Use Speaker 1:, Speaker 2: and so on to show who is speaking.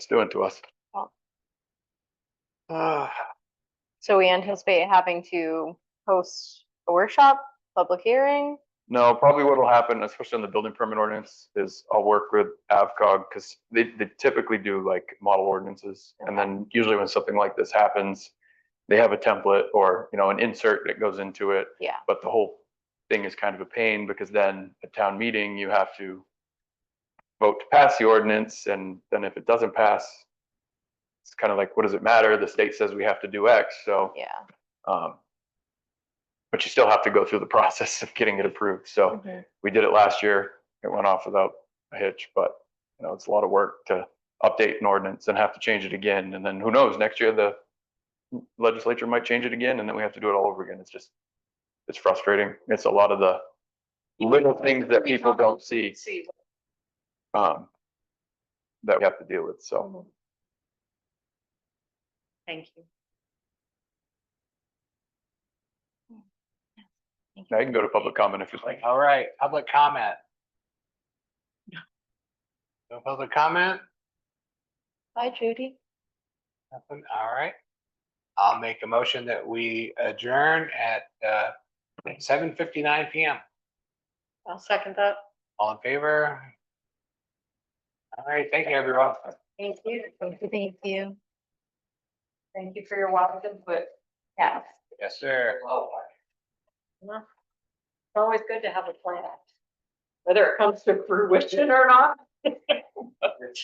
Speaker 1: it's doing to us.
Speaker 2: Well.
Speaker 1: Ah,
Speaker 2: So we anticipate having to host a workshop, public hearing.
Speaker 1: No, probably what'll happen, especially on the building permit ordinance, is I'll work with AvCog because they, they typically do like model ordinances. And then usually when something like this happens, they have a template or, you know, an insert that goes into it.
Speaker 2: Yeah.
Speaker 1: But the whole thing is kind of a pain because then at town meeting, you have to vote to pass the ordinance. And then if it doesn't pass, it's kind of like, what does it matter? The state says we have to do X, so.
Speaker 2: Yeah.
Speaker 1: um, But you still have to go through the process of getting it approved. So we did it last year. It went off without a hitch, but you know, it's a lot of work to update an ordinance and have to change it again. And then who knows, next year the legislature might change it again and then we have to do it all over again. It's just, it's frustrating. It's a lot of the little things that people don't see,
Speaker 2: See.
Speaker 1: um, that we have to deal with. So
Speaker 2: Thank you.
Speaker 1: now you can go to public comment if you'd like.
Speaker 3: All right, public comment. No public comment?
Speaker 2: Bye, Judy.
Speaker 3: Nothing, all right. I'll make a motion that we adjourn at uh seven fifty-nine PM.
Speaker 2: I'll second that.
Speaker 3: All in favor? All right, thank you, everyone.
Speaker 2: Thank you. Thank you. Thank you for your wild input. Yeah.
Speaker 3: Yes, sir.
Speaker 2: It's always good to have a plan. Whether it comes to fruition or not.